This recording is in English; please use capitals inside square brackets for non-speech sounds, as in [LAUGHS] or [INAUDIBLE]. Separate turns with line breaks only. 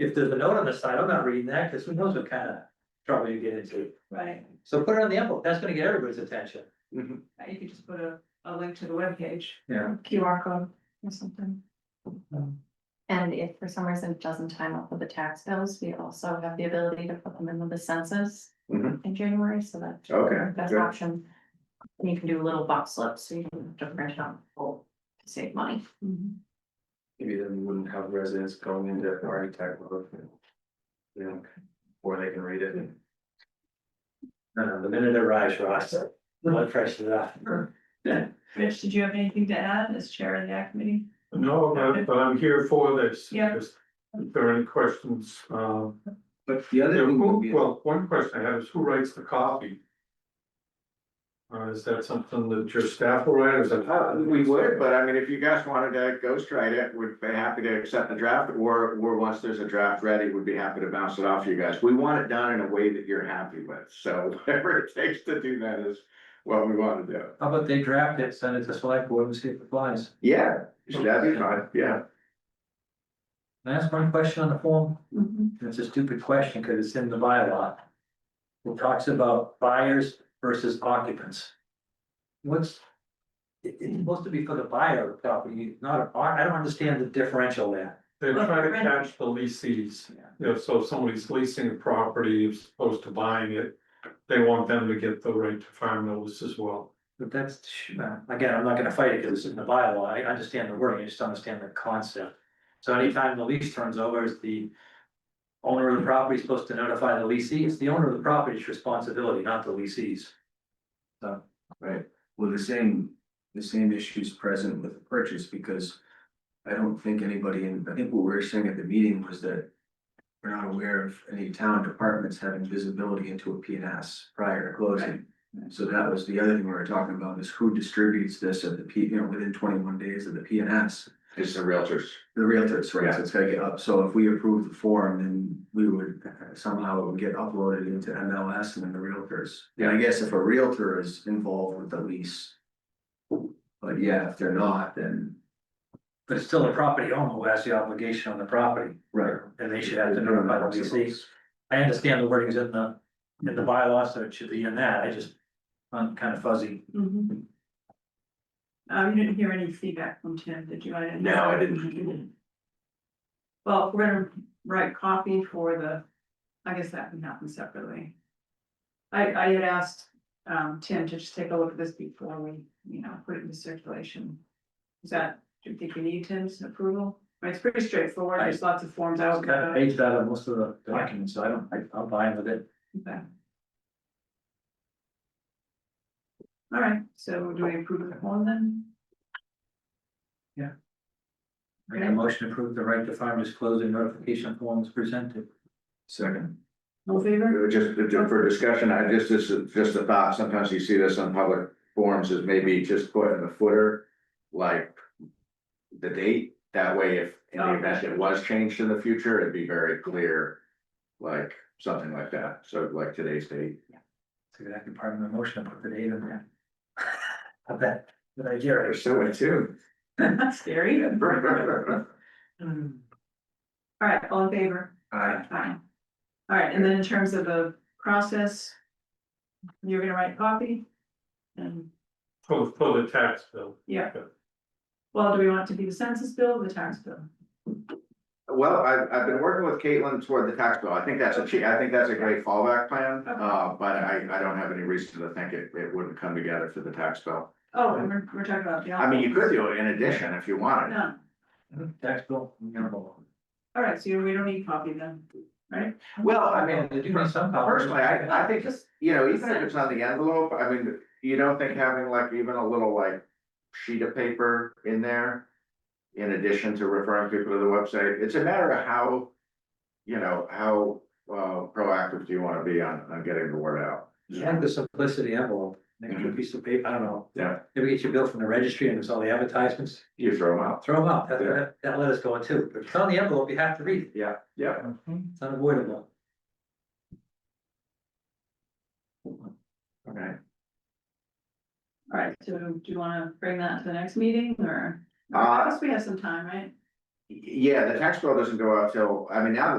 if there's a note on the side, I'm not reading that, because who knows what kind of trouble you get into.
right,
So put it on the envelope, that's gonna get everybody's attention.
Uh, you could just put a, a link to the webpage,
Yeah.
QR code or something.
And if for some reason it doesn't time up with the tax bills, we also have the ability to put them in with the census
Mhm.
in January, so that.
Oh,
Okay,
Best
good.
option. And you can do little box slips, so you don't have to print out full to save money.
Mm-hmm.
Maybe then we wouldn't have residents going into architect mode. You know, or they can read it.
No, no, the minute it arrives, Ross, blood pressure up.
Rich, did you have anything to add as chair of the act committee?
No, but but I'm here for this.
Yeah.
Just If there are any questions, um,
But the other thing would be,
well, one question I have is who writes the copy? Or is that something that your staff will write or is
Uh,
that?
we would, but I mean, if you guys wanted to ghostwrite it, we'd be happy to accept the draft, or, or once there's a draft ready, we'd be happy to bounce it off you guys. We want it done in a way that you're happy with, so [LAUGHS] whatever it takes to do that is what we wanna do.
How about they draft it, send it to select board and see if it flies?
Yeah, that'd be fine, yeah.
Can I ask one question on the form?
Mm-hmm.
Mhm.
It's a stupid question, because it's in the bylaw. It talks about buyers versus occupants. What's? It, it's supposed to be for the buyer of the property, not, I I don't understand the differential there.
They're trying to catch the leases. You know, so if somebody's leasing a property as opposed to buying it, they want them to get the right to farm notice as well.
But that's, again, I'm not gonna fight it, because it's in the bylaw, I understand the wording, I just don't understand the concept. So anytime the lease turns over, is the. Owner of the property supposed to notify the leasee, it's the owner of the property's responsibility, not the leasee's.
right, well, the same, the same issues present with the purchase, because. I don't think anybody, in I think what we were saying at the meeting was that. We're not aware of any town departments having visibility into a P and S prior to closing. So that was the other thing we were talking about, is who distributes this at the P, you know, within twenty-one days of the P and S.
It's the realtors.
The realtors, right,
Yeah.
so it's gotta get up, so if we approve the form, then we would uh, somehow it would get uploaded into MLS and then the realtors. And I guess if a realtor is involved with the lease. But yeah, if they're not, then.
But it's still the property owner who has the obligation on the property. And they should have to notify the leasee. I understand the wording's in the, in the bylaw, so it should be in that, I just, I'm kind of fuzzy.
Mm-hmm.
Mhm. Uh, you didn't hear any feedback from Tim, did you? I
No, I didn't.
Well, if we're gonna write copy for the, I guess that can happen separately. I, I had asked, um, Tim to just take a look at this before we, you know, put it into circulation. Is that, do you think we need Tim's approval? I mean, it's pretty straightforward, there's lots of forms
I
out.
was kind of paged out of most of the documents, so I don't, I- I'm fine with it.
Okay. All right, so do we approve the form then?
Make a motion to approve the right to farm disclosure notification forms presented.
Second.
All in favor? [LAUGHS]
Just to- for discussion, I just, this is just a thought, sometimes you see this on public forums, is maybe just put in the footer, like. The date, that way if in the event it was changed in the future, it'd be very clear. Like, something like that, so like today's date.
So that could part of the motion, put the date in there. [LAUGHS] I bet, good idea, right?
so in tune.
That's scary. All right, all in favor?
I,
Fine. All right, and then in terms of the process, you're gonna write copy? And,
For, for the tax bill.
yeah. Well, do we want it to be the census bill or the tax bill?
[LAUGHS] Well, I've, I've been working with Caitlin toward the tax bill, I think that's a, che- I think that's a great fallback plan, uh, but I, I don't have any reason to think it, it wouldn't come together for the tax bill.
Oh, and we're, we're talking about the.
I mean, you could do it in addition if you wanted.
No,
Tax bill, you know.
all right, so you- we don't need copy then, right?
Well, I mean,
they do need some.
Personally, I, I think,
Just-
you know, even if it's on the envelope, I mean, you don't think having like even a little like sheet of paper in there. In addition to referring people to the website, it's a matter of how, you know, how uh proactive do you wanna be on on getting the word out?
I like the simplicity envelope, make it a piece of paper, I don't know.
Yeah.
Maybe get your bill from the registry and there's all the advertisements,
You throw them out.
throw them out, that,
Yeah.
that, that let us go in too, but if it's on the envelope, you have to read it,
Yeah, yeah.
it's unavoidable.
Okay.
All right, so do you wanna bring that to the next meeting or?
Uh,
Unless we have some time, right?
Yeah, the tax bill doesn't go out till, I mean, now that